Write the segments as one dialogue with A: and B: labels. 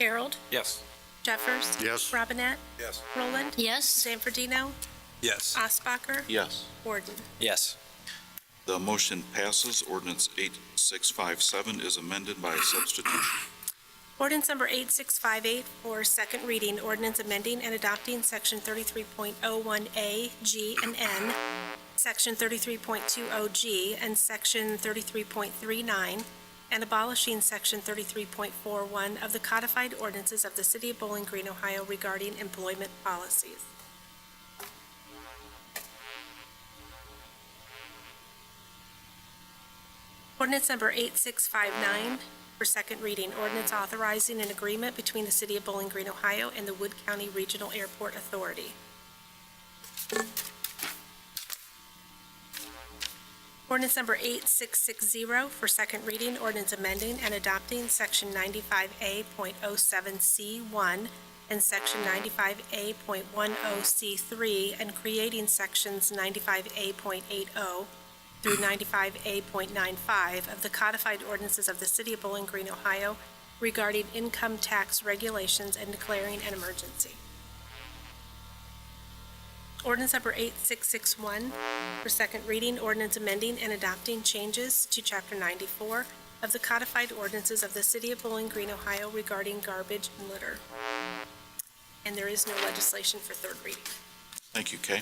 A: Harold,
B: Yes.
A: Jeffers.
C: Yes.
A: Robinette,
B: Yes.
A: Roland,
D: Yes.
A: Zanfordino,
B: Yes.
A: Uh, Osbacher,
C: Yes.
A: Gordon.
B: Yes.
C: The motion passes. Ordinance 8657 is amended by substitution.
A: Ordinance number 8658 for second reading, ordinance amending and adopting section 33.01A, G, and N, section 33.20G, and section 33.39, and abolishing section 33.41 of the codified ordinances of the city of Bowling Green, Ohio regarding employment policies. Ordinance number 8659 for second reading, ordinance authorizing an agreement between the City of Bowling Green, Ohio and the Wood County Regional Airport Authority. Ordinance number 8660 for second reading, ordinance amending and adopting Section 95A.07C1 and Section 95A.10C3 and creating Sections 95A.80 through 95A.95 of the codified ordinances of the City of Bowling Green, Ohio regarding income tax regulations and declaring an emergency. Ordinance number 8661 for second reading, ordinance amending and adopting changes to Chapter 94 of the codified ordinances of the City of Bowling Green, Ohio regarding garbage and litter. And there is no legislation for third reading.
C: Thank you, Kay.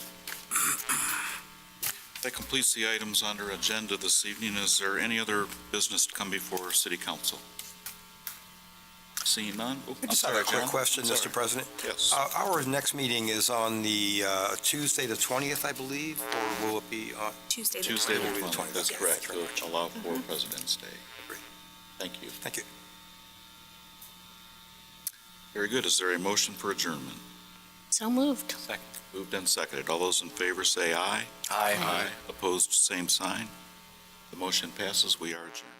C: That completes the items under agenda this evening. Is there any other business to come before City Council? Seeing none? Oh,
E: I
C: I'm
E: just have a
C: sorry,
E: quick
C: John.
E: question, Mr.
C: Sorry.
E: President.
C: Yes.
E: Uh, Our next meeting is on the uh, Tuesday, the 20th, I believe, or will it be on?
A: Tuesday, the 20th.
C: Tuesday
E: will be
C: the
E: the
C: 20th, that's
E: Yes.
C: correct, to allow for President's Day. Thank you.
E: Thank you.
C: Very good. Is there a motion for adjournment?
D: So moved.
C: Moved and seconded. All those in favor say aye.
B: Aye.
C: Opposed, same sign. The motion passes. We are adjourned.